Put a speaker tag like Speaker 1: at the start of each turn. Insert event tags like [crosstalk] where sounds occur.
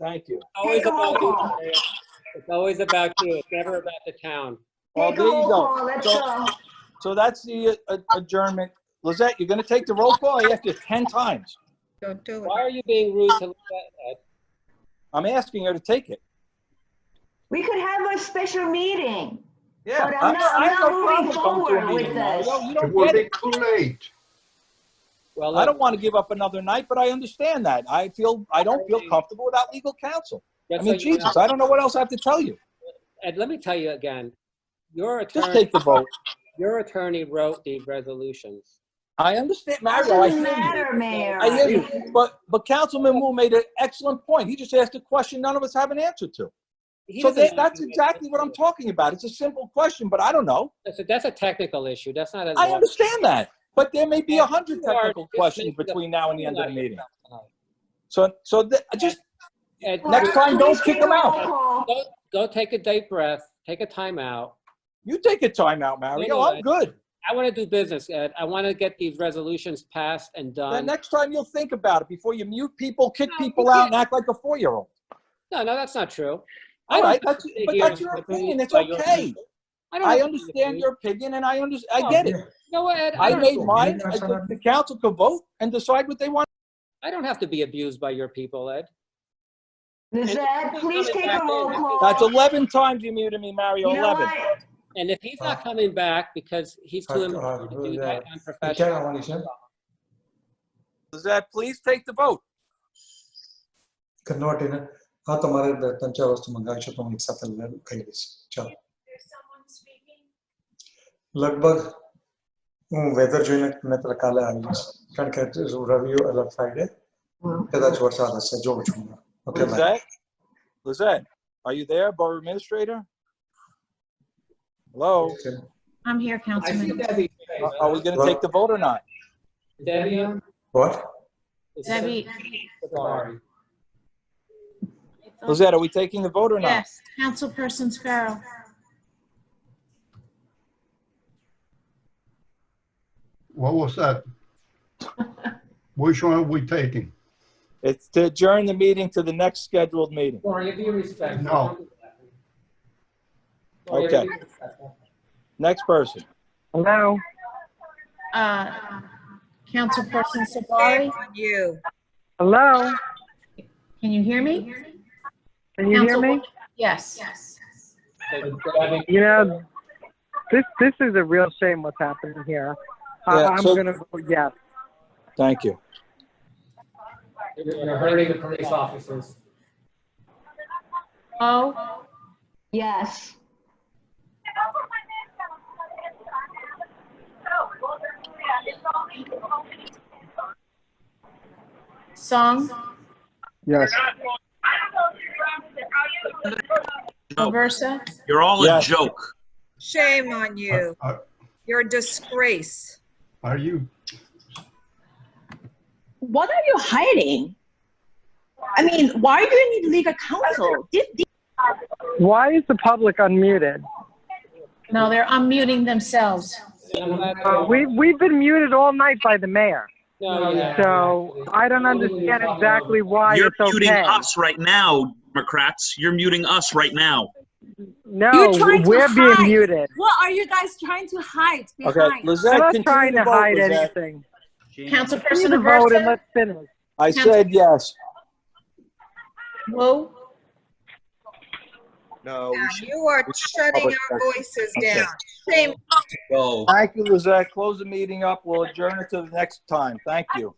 Speaker 1: Thank you.
Speaker 2: Always
Speaker 3: Take a roll
Speaker 2: about you.
Speaker 3: call.
Speaker 2: Maria. It's always about you. It's never about the town.
Speaker 1: Well,
Speaker 3: Take a
Speaker 1: there you
Speaker 3: roll
Speaker 1: go.
Speaker 3: call, let's
Speaker 1: So-
Speaker 3: go.
Speaker 1: So that's the uh, adjournment. Lizette, you're going to take the roll call after 10 times.
Speaker 4: Don't do
Speaker 2: Why
Speaker 4: it.
Speaker 2: are you being rude to Lizette?
Speaker 1: I'm asking her to take it.
Speaker 3: We could have a special meeting.
Speaker 1: Yeah.
Speaker 3: But
Speaker 1: I-
Speaker 3: I'm not-
Speaker 1: I have
Speaker 3: I'm
Speaker 1: no problem
Speaker 3: not moving
Speaker 1: going to a
Speaker 3: forward with
Speaker 1: meeting, Mario.
Speaker 3: this.
Speaker 1: You
Speaker 5: It
Speaker 1: don't
Speaker 5: will
Speaker 1: get
Speaker 5: be
Speaker 1: it.
Speaker 5: too late.
Speaker 2: Well,
Speaker 1: I don't want to give up another night, but I understand that. I feel, I don't feel comfortable without legal counsel. I
Speaker 2: just so
Speaker 1: mean,
Speaker 2: you know-
Speaker 1: Jesus, I don't know what else I have to tell you.
Speaker 2: And let me tell you again, your
Speaker 1: Just
Speaker 2: attorney,
Speaker 1: take the vote.
Speaker 2: your attorney wrote the resolutions.
Speaker 1: I understand, Mario, I
Speaker 3: Doesn't
Speaker 1: hear you.
Speaker 3: matter, Mayor.
Speaker 1: I hear you. But, but Councilman Wu made an excellent point. He just asked a question none of us have an answer to.
Speaker 2: He
Speaker 1: So
Speaker 2: doesn't
Speaker 1: that, that's
Speaker 2: argue it.
Speaker 1: exactly what I'm talking about. It's a simple question, but I don't know.
Speaker 2: That's a- That's a technical issue. That's not a.
Speaker 1: I
Speaker 2: law.
Speaker 1: understand that. But there may be a hundred
Speaker 2: You are
Speaker 1: technical
Speaker 2: just
Speaker 1: questions
Speaker 2: making a
Speaker 1: between now and the end of the
Speaker 2: fool out
Speaker 1: meeting.
Speaker 2: yourself tonight.
Speaker 1: So, so th- just,
Speaker 2: Ed,
Speaker 3: Well,
Speaker 1: Next
Speaker 3: why
Speaker 1: time,
Speaker 3: we
Speaker 1: don't kick
Speaker 3: take a
Speaker 1: him out.
Speaker 3: roll call?
Speaker 2: Go, go take a deep breath, take a timeout.
Speaker 1: you take a timeout, Mario. I'm good.
Speaker 2: I want to do business, Ed. I want to get these resolutions passed and
Speaker 1: The
Speaker 2: done.
Speaker 1: next time you'll think about it before you mute people, kick
Speaker 2: um, No, you
Speaker 1: people out and act like a four-year-old.
Speaker 2: No, no, that's not true. I
Speaker 1: All
Speaker 2: don't
Speaker 1: right,
Speaker 2: have
Speaker 1: that's,
Speaker 2: to sit
Speaker 1: but
Speaker 2: here
Speaker 1: that's
Speaker 2: and
Speaker 1: your
Speaker 2: argue
Speaker 1: opinion. It's
Speaker 2: about your
Speaker 1: okay.
Speaker 2: opinion. I don't
Speaker 1: I
Speaker 2: have to
Speaker 1: understand
Speaker 2: agree.
Speaker 1: your opinion and I under, I
Speaker 2: No,
Speaker 1: get it.
Speaker 2: You know what, Ed? I
Speaker 1: I
Speaker 2: don't,
Speaker 1: made mine. I think The council could vote and decide what they want.
Speaker 2: I don't have to be abused by your people, Ed.
Speaker 3: Lizette, please take a roll call.
Speaker 1: That's 11 times you muted me, Mario,
Speaker 3: You know
Speaker 1: 11.
Speaker 3: what?
Speaker 2: And if he's not coming back because he's too
Speaker 6: Fuck,
Speaker 2: important
Speaker 6: uh,
Speaker 2: Uh, to do that
Speaker 6: yeah.
Speaker 2: unprofessional.
Speaker 1: Lizette, please take the vote.
Speaker 6: Convert હા તમારે દ- ત્રણ ચાર વસ્તુ મંગાવી છે તો હું એક સાથે લ- કહી દઈશ ચાલો લગભગ હું વેધર જોઈને નહીતર કાલે આવી જઈશ કારણ કે રવિ અલગ ફ્રાઈડે કદાચ વરસાદ હશે જોઉં છું okay bye
Speaker 1: Lizette? Lizette, are you there, Borough Administrator? Hello?
Speaker 4: I'm here, Councilman.
Speaker 1: Are- Are we going to take the vote or not?
Speaker 2: Debbie? on?
Speaker 6: Vote
Speaker 2: Is
Speaker 4: Debbie,
Speaker 2: Sorry.
Speaker 1: Lizette, are we taking the vote or not?
Speaker 4: yes, Councilperson Sparrow.
Speaker 5: What was that?
Speaker 1: [laughs]
Speaker 5: Which one are we taking?
Speaker 1: It's to adjourn the meeting to the next scheduled meeting.
Speaker 2: Lori, if you respect.
Speaker 5: No.
Speaker 2: Lori, if you
Speaker 1: Okay.
Speaker 2: respect her.
Speaker 1: Next person.
Speaker 7: Hello?
Speaker 4: Uh, Councilperson Sabari,
Speaker 8: You.
Speaker 7: Hello?
Speaker 4: can you hear me?
Speaker 7: Can you hear
Speaker 4: Council-
Speaker 7: me?
Speaker 4: Yes.
Speaker 2: Debbie,
Speaker 7: You know, this, this is a real shame what's happening here. I-
Speaker 1: Yeah,
Speaker 7: I'm
Speaker 1: so-
Speaker 7: gonna vote yes.
Speaker 1: Thank you.
Speaker 2: You're hurting the police officers.
Speaker 4: Oh,
Speaker 3: Yes.
Speaker 4: Song,
Speaker 7: Yes.
Speaker 4: Aversa,
Speaker 9: You're all a
Speaker 1: Yes.
Speaker 9: joke.
Speaker 8: Shame on you.
Speaker 5: Are-
Speaker 8: You're a disgrace.
Speaker 5: Are you,
Speaker 10: what are you hiding? I mean, why do you need legal counsel? Did, did
Speaker 7: Why is the public unmuted?
Speaker 4: no, they're unmuting themselves.
Speaker 7: Uh, We, we've been muted all night by the mayor,
Speaker 2: No, yeah.
Speaker 7: so I don't understand exactly why
Speaker 9: You're
Speaker 7: it's
Speaker 9: muting
Speaker 7: okay.
Speaker 9: us right now, Democrats. You're muting us right now.
Speaker 7: No,
Speaker 10: You're trying to
Speaker 7: we're being
Speaker 10: hide.
Speaker 7: muted.
Speaker 10: what are you guys trying to hide behind?
Speaker 1: Okay, Lizette,
Speaker 7: I'm not
Speaker 1: continue
Speaker 7: trying
Speaker 1: to
Speaker 7: to
Speaker 1: vote,
Speaker 7: hide
Speaker 1: Lizette.
Speaker 7: anything. Continue
Speaker 4: Councilperson
Speaker 7: to vote and
Speaker 4: Aversa,
Speaker 7: let's finish.
Speaker 1: I said yes.
Speaker 4: Wu,
Speaker 6: No.
Speaker 8: Yeah, You are shutting our voices down. Shame
Speaker 1: Thank you, Lizette. Close the meeting up. We'll adjourn it to the next time. Thank you.